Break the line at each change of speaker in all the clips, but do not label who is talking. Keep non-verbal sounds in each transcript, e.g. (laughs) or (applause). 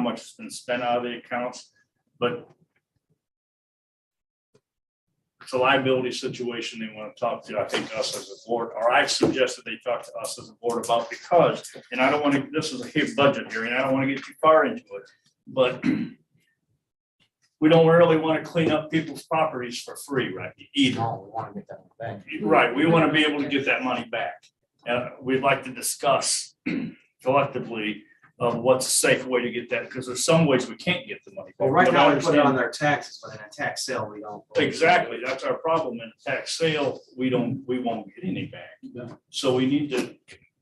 much has been spent out of the accounts, but it's a liability situation they want to talk to, I think, us as a board, or I suggested they talk to us as a board about because, and I don't want to, this is a huge budget here, and I don't want to get too far into it, but (clears throat) we don't really want to clean up people's properties for free, right, either.
No, we wanna get that back.
Right, we want to be able to get that money back. Uh, we'd like to discuss (clears throat) collectively of what's a safe way to get that, because there's some ways we can't get the money. back.
Well, right
But I
now, we put it
understand-
on their taxes, but in a tax sale, we don't.
Exactly, that's our problem. In a tax sale, we don't, we won't get any back.
Yeah.
So we need to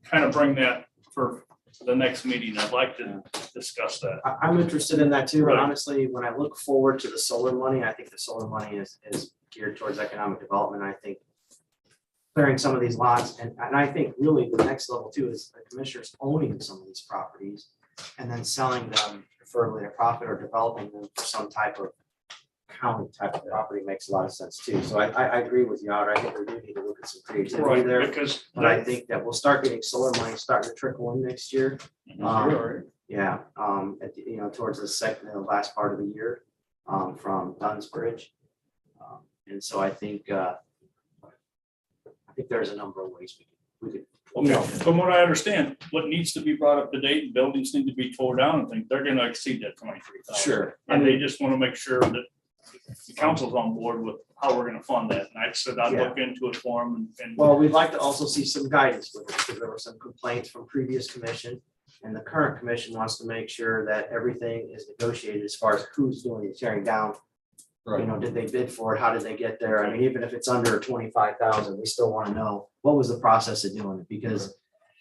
kind of bring that for the next meeting. I'd like to discuss that.
I, I'm interested in that too, but
Right.
honestly, when I look forward to the solar money, I think the solar money is, is geared towards economic development, I think. Clearing some of these lots, and, and I think really the next level too is the commissioners owning some of these properties. And then selling them preferably at a profit or developing them for some type of county type of property makes a lot of sense too, so I, I, I agree with you, Otter, I think we do need to look at some creativity
Right,
there.
because
But I think that we'll start getting solar money starting to trickle in next year.
Mhm. Mm-hmm.
Um, Yeah, um, at, the- you know, towards the second, the last part of the year, um, from Dunn's Bridge. Um, And so I think, uh, I think there's a number of ways we could, we could, you know,
Okay, from what I understand, what needs to be brought up to date, buildings need to be tore down and things, they're gonna exceed that twenty-three thousand.
sure.
And they just wanna make sure that the council's on board with how we're gonna fund that. And I said I'd look into it for them and.
Well, we'd like to also see some guidance with it, because there were some complaints from previous commission. And the current commission wants to make sure that everything is negotiated as far as who's doing the tearing down. You know, did they bid for it? How did they get there? I mean, even if it's under twenty-five thousand, we still want to know what was the process of doing it, because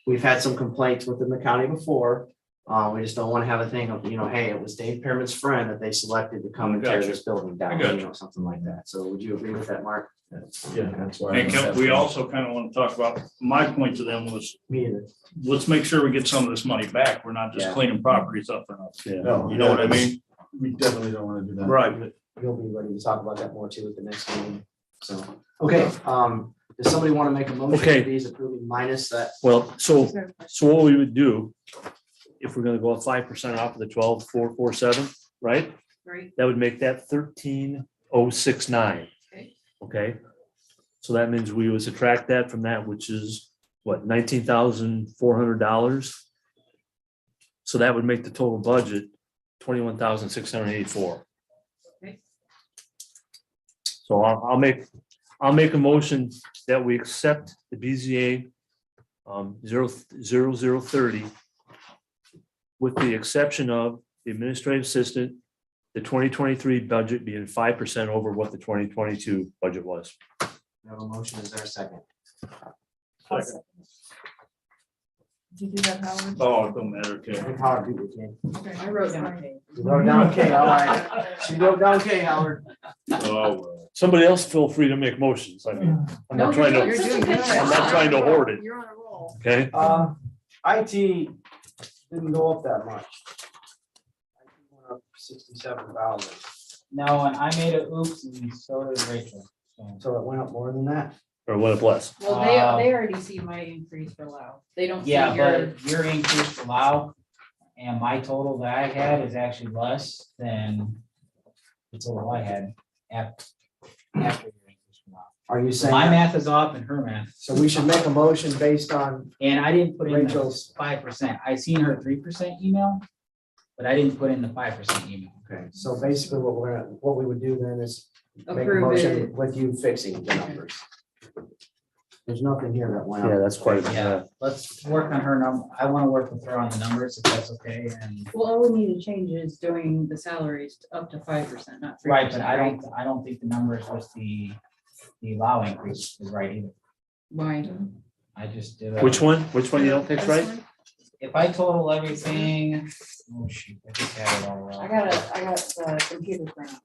we've had some complaints within the county before. Uh, we just don't want to have a thing of, you know, hey, it was Dave Pearman's friend that they selected to come and tear
Gotcha.
this building down,
gotcha.
you know, something like that. So would you agree with that, Mark?
Yeah, that's why.
And can- we also kind of want to talk about, my point to them was,
Me either.
let's make sure we get some of this money back. We're not just
Yeah.
cleaning properties up and up.
No,
You know what I mean?
We definitely don't wanna do that.
Right.
You'll be ready to talk about that more too at the next meeting. So, okay, um, does somebody want to make a motion
Okay.
to these approving minus that?
Well, so, so what we would do, if we're gonna go up five percent off of the twelve, four, four, seven, right?
Right.
That would make that thirteen oh six nine.
Okay.
Okay? So that means we would subtract that from that, which is what, nineteen thousand four hundred dollars? So that would make the total budget twenty-one thousand six hundred eighty-four.
Okay.
So I'll, I'll make, I'll make a motion that we accept the BZA um, zero, zero, zero thirty with the exception of the administrative assistant, the twenty twenty-three budget being five percent over what the twenty twenty-two budget was.
We have a motion, is there a second?
Awesome. Did you do that, Howard?
Oh, it don't matter, okay.
Howard, do it, Ken.
Oh.
Okay, I wrote down.
You wrote down K, all right. She wrote down K, Howard.
Oh,
Somebody else feel free to make motions. I mean, I'm not trying
you're
to,
doing- I'm
not trying to hoard it.
You're on a roll.
okay?
Uh, IT didn't go up that much. IT went up Sixty-seven thousand,
No, and I made a oops and so did Rachel. so.
so it went up more than that.
Or what it was.
Well, they, they already see my increase for low. They don't see
Yeah,
your,
but your increase allow and my total that I had is actually less than the total I had after. after your increase allowed.
Are you
So my
saying,
math is off and her math,
so we should make a motion based on
and I didn't put in the
Rachel's?
five percent. I seen her three percent email, but I didn't put in the five percent email.
Okay, so basically what we're, gonna what we would do then is make a
Approve
motion
it.
with you fixing the numbers. There's nothing here that went
Yeah,
up.
that's quite. a-
Yeah, let's work on her number. I want to work with her on the numbers if that's okay and.
well, all we need to change is doing the salaries up to five percent, not three
Right,
percent.
but I don't, I don't think the numbers was the, the allow increase is right either.
Why?
I just did. a-
Which one? Which one you don't think
This
right?
one?
If I total everything, oh shoot, I just had it all wrong.
I got a, I got the computer grant.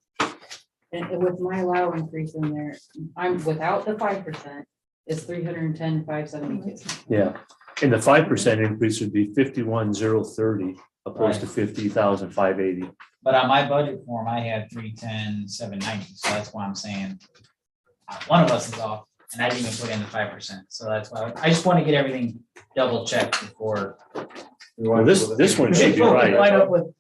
And it- with my allow increase in there, I'm without the five percent, it's three hundred and ten, five seventy-two.
Yeah. And the five percent increase would be fifty-one, zero, thirty, opposed to fifty thousand, five eighty.
But on my budget form, I had three ten, seven ninety, so that's why I'm saying. uh, One of us is off, and I didn't even put in the five percent, so that's why, I just want to get everything double checked before.
Well, this, this one should be right.
(laughs) Wind up with